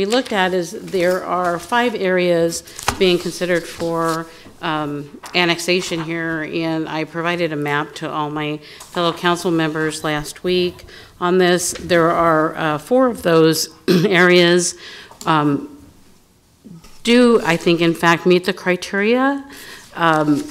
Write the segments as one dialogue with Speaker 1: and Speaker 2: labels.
Speaker 1: we looked at is there are five areas being considered for um, annexation here, and I provided a map to all my fellow council members last week on this. There are uh, four of those areas um, do, I think, in fact, meet the criteria. Um,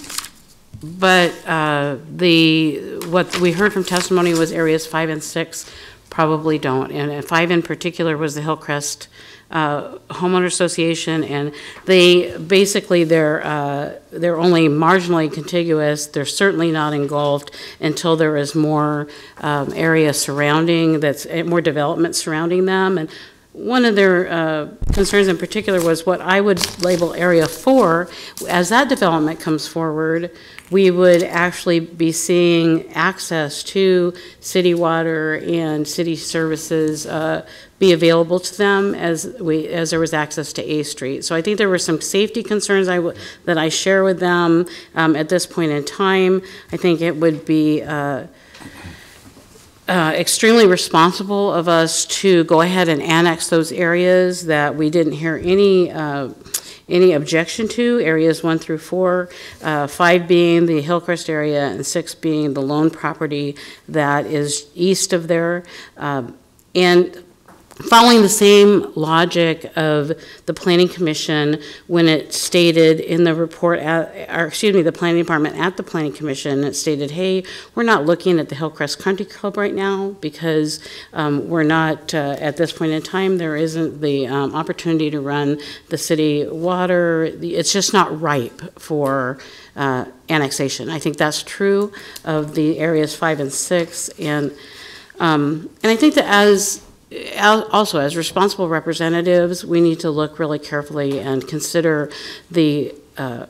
Speaker 1: But uh, the, what we heard from testimony was areas five and six probably don't. And uh, five in particular was the Hillcrest uh, Homeowner Association, and they, basically, they're, uh, they're only marginally contiguous. They're certainly not engulfed until there is more um, area surrounding, that's, eh, more development surrounding them. And one of their uh, concerns in particular was what I would label Area 4. As that development comes forward, we would actually be seeing access to city water and city services uh, be available to them as we, as there was access to A Street. So I think there were some safety concerns I, w- that I share with them um, at this point in time. I think it would be, uh, uh, extremely responsible of us to go ahead and annex those areas that we didn't hear any, uh, any objection to, areas one through four, uh, five being the Hillcrest area, and six being the lone property that is east of there. Um, And following the same logic of the planning commission when it stated in the report at, or excuse me, the planning department at the planning commission, it stated, hey, we're not looking at the Hillcrest Country Club right now because um, we're not, uh, at this point in time, there isn't the um, opportunity to run the city water. The- It's just not ripe for uh, annexation. I think that's true of the areas five and six. And, um, and I think that as al- also as responsible representatives, we need to look really carefully and consider the, uh,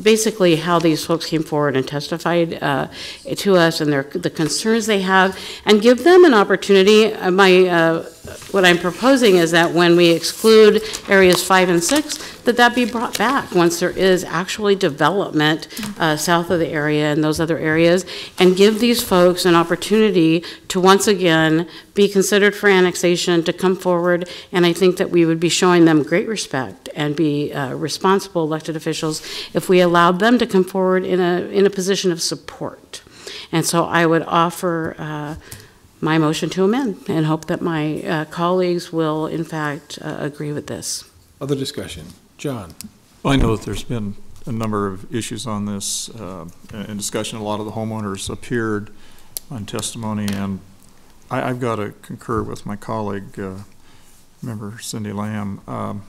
Speaker 1: basically how these folks came forward and testified uh, to us and their, the concerns they have, and give them an opportunity. Uh, My, uh, what I'm proposing is that when we exclude areas five and six, that that be brought back once there is actually development uh, south of the area and those other areas, and give these folks an opportunity to once again be considered for annexation, to come forward, and I think that we would be showing them great respect and be uh, responsible elected officials if we allowed them to come forward in a, in a position of support. And so I would offer uh, my motion to amend and hope that my uh, colleagues will in fact uh, agree with this.
Speaker 2: Other discussion? John?
Speaker 3: Well, I know that there's been a number of issues on this uh, and discussion. A lot of the homeowners appeared on testimony, and I, I've got to concur with my colleague, uh, Member Cindy Lamb. Um,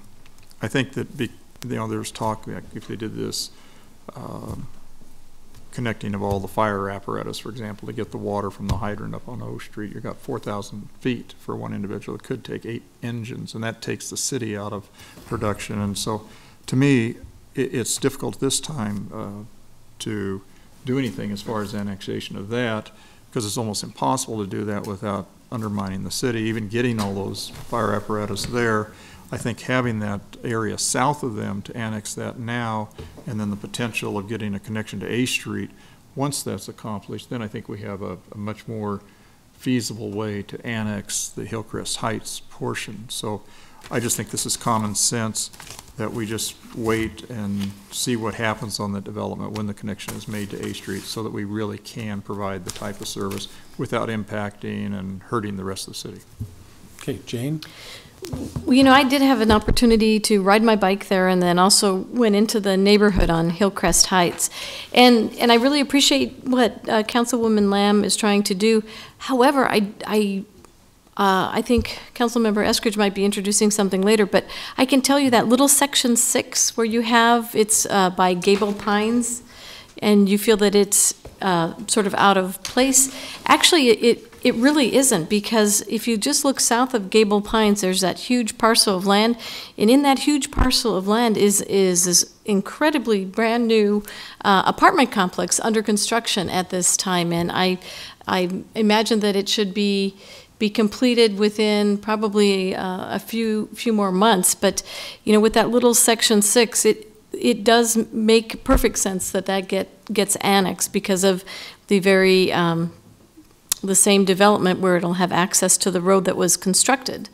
Speaker 3: I think that, be- you know, there's talk, like, if they did this, um, connecting of all the fire apparatus, for example, to get the water from the hydrant up on O Street, you've got 4,000 feet for one individual. It could take eight engines, and that takes the city out of production. And so to me, i it's difficult this time, uh, to do anything as far as annexation of that, because it's almost impossible to do that without undermining the city, even getting all those fire apparatus there. I think having that area south of them to annex that now, and then the potential of getting a connection to A Street, once that's accomplished, then I think we have a, a much more feasible way to annex the Hillcrest Heights portion. So I just think this is common sense that we just wait and see what happens on the development when the connection is made to A Street, so that we really can provide the type of service without impacting and hurting the rest of the city.
Speaker 2: Okay, Jane?
Speaker 4: Well, you know, I did have an opportunity to ride my bike there and then also went into the neighborhood on Hillcrest Heights. And, and I really appreciate what uh, Councilwoman Lamb is trying to do. However, I, I, uh, I think Councilmember Eskridge might be introducing something later, but I can tell you that little section six where you have, it's uh, by Gable Pines, and you feel that it's uh, sort of out of place, actually, it, it really isn't, because if you just look south of Gable Pines, there's that huge parcel of land, and in that huge parcel of land is, is this incredibly brand-new uh, apartment complex under construction at this time, and I, I imagine that it should be, be completed within probably uh, a few, few more months, but, you know, with that little section six, it, it does make perfect sense that that get, gets annexed because of the very, um, the same development where it'll have access to the road that was constructed.